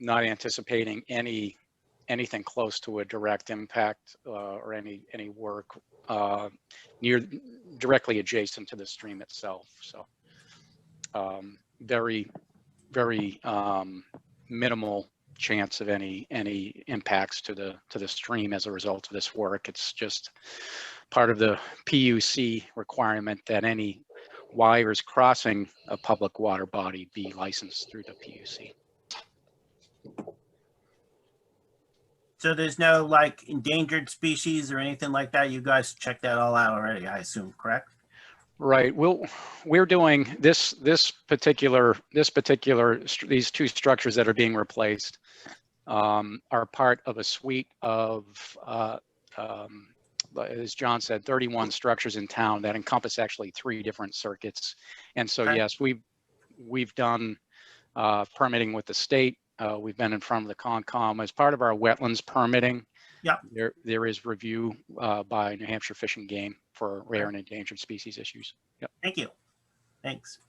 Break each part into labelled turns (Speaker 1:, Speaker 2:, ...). Speaker 1: not anticipating any, anything close to a direct impact uh, or any, any work uh, near, directly adjacent to the stream itself, so. um, Very, very um, minimal chance of any, any impacts to the, to the stream as a result of this work. It's just part of the PUC requirement that any wires crossing a public water body be licensed through the PUC.
Speaker 2: So there's no like endangered species or anything like that? You guys checked that all out already, I assume, correct?
Speaker 1: Right, we'll, we're doing this, this particular, this particular, str- these two structures that are being replaced um, are part of a suite of, uh, um, as John said, 31 structures in town that encompass actually three different circuits. And so,
Speaker 2: Okay.
Speaker 1: yes, we've, we've done uh, permitting with the state. Uh, We've been in front of the Concom as part of our wetlands permitting.
Speaker 2: Yep.
Speaker 1: There, there is review uh, by New Hampshire Fish and Game for rare and endangered species issues.
Speaker 2: Thank you. Thanks.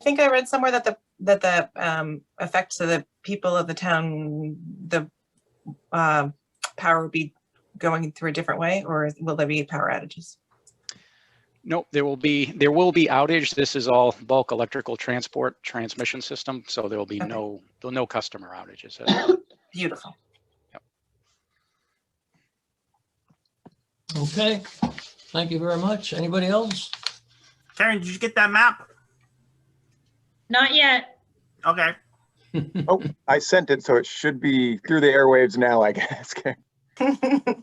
Speaker 3: I think I read somewhere that the, that the um, effect to the people of the town, the uh, power would be going through a different way, or will there be power outages?
Speaker 1: Nope, there will be, there will be outage. This is all bulk electrical transport transmission system, so there will be
Speaker 3: Okay.
Speaker 1: no, there'll no customer outages.
Speaker 3: Beautiful.
Speaker 4: Okay, thank you very much. Anybody else?
Speaker 2: Karen, did you get that map?
Speaker 5: Not yet.
Speaker 2: Okay,
Speaker 6: I sent it, so it should be through the airwaves now, I guess. Okay.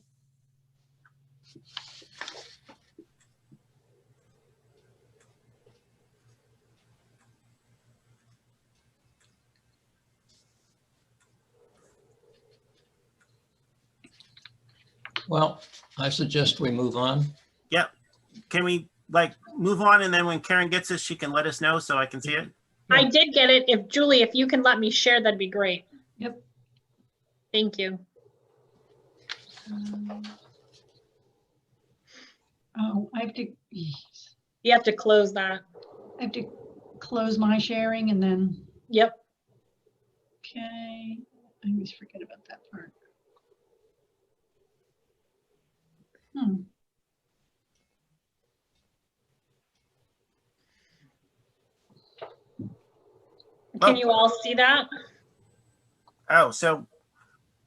Speaker 4: Well, I suggest we move on.
Speaker 2: can we like move on and then when Karen gets this, she can let us know so I can see it?
Speaker 5: I did get it. If Julie, if you can let me share, that'd be great.
Speaker 7: Yep.
Speaker 5: Thank you.
Speaker 7: Oh, I have to,
Speaker 5: You have to close that.
Speaker 7: I have to close my sharing and then,
Speaker 5: Yep.
Speaker 7: okay, I always forget about that part. Hmm.
Speaker 5: Can
Speaker 2: Oh.
Speaker 5: you all see that?
Speaker 2: Oh, so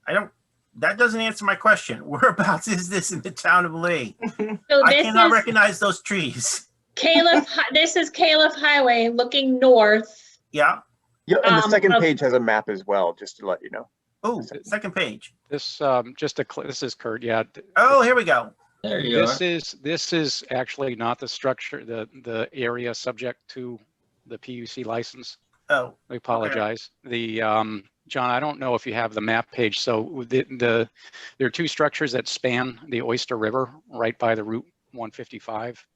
Speaker 2: I don't, that doesn't answer my question. Whereabouts is this in the town of Lee?
Speaker 5: So
Speaker 2: I
Speaker 5: this
Speaker 2: cannot
Speaker 5: is
Speaker 2: recognize those trees.
Speaker 5: Caleb, Hi- this is Caleb Highway looking north.
Speaker 2: Yeah,
Speaker 6: Yeah, and the
Speaker 5: Um,
Speaker 6: second
Speaker 5: okay.
Speaker 6: page has a map as well, just to let you know.
Speaker 2: oh, second page.
Speaker 1: This, um, just a, cl- this is Kurt, yeah. th-
Speaker 2: Oh, here we go.
Speaker 4: There you are.
Speaker 1: This is, this is actually not the structure, the, the area subject to the PUC license.
Speaker 2: Oh,
Speaker 1: I apologize. The, um, John, I don't know if you have the map page. So the, the, there are two structures that span the Oyster River right by the Route 155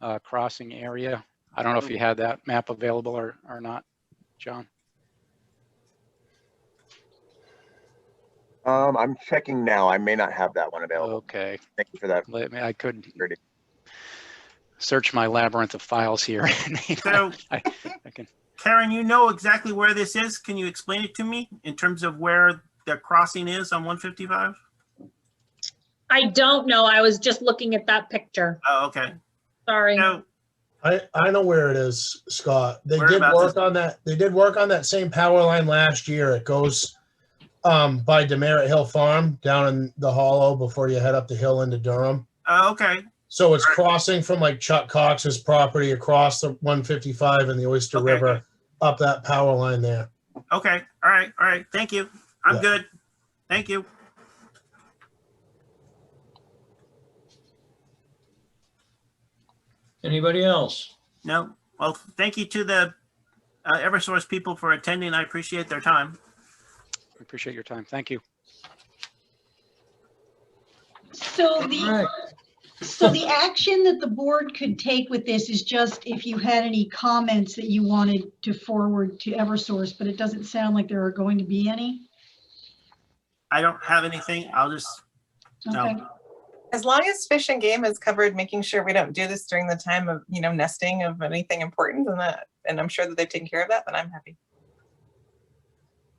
Speaker 1: uh, crossing area. I don't know if you had that map available or, or not, John.
Speaker 6: Um, I'm checking now. I may not have that one available.
Speaker 1: Okay,
Speaker 6: Thank you for that.
Speaker 1: let me, I could
Speaker 6: Ready.
Speaker 1: search my labyrinth of files here.
Speaker 2: so
Speaker 1: I can-
Speaker 2: Karen, you know exactly where this is. Can you explain it to me in terms of where the crossing is on 155?
Speaker 5: I don't know. I was just looking at that picture.
Speaker 2: Oh, okay.
Speaker 5: Sorry.
Speaker 2: No,
Speaker 8: I, I know where it is, Scott. They did
Speaker 2: Whereabouts is-
Speaker 8: work on that, they did work on that same power line last year. It goes um, by Demerit Hill Farm down in the hollow before you head up the hill into Durham.
Speaker 2: oh, okay,
Speaker 8: So it's
Speaker 2: Right.
Speaker 8: crossing from like Chuck Cox's property across the one fifty-five and the Oyster
Speaker 2: Okay.
Speaker 8: River up that power line there.
Speaker 2: okay. All right, all right. Thank you. I'm
Speaker 8: Yeah.
Speaker 2: good. Thank you.
Speaker 4: Anybody else?
Speaker 2: No, well, thank you to the uh, Eversource people for attending. I appreciate their time.
Speaker 1: Appreciate your time. Thank you.
Speaker 7: So
Speaker 4: All
Speaker 7: the,
Speaker 4: right,
Speaker 7: so the action that the board could take with this is just if you had any comments that you wanted to forward to Eversource, but it doesn't sound like there are going to be any.
Speaker 2: I don't have anything. I'll just,
Speaker 7: Okay.
Speaker 2: no.
Speaker 3: As long as fish and game is covered, making sure we don't do this during the time of, you know, nesting of anything important and that, and I'm sure that they've taken care of that, then I'm happy.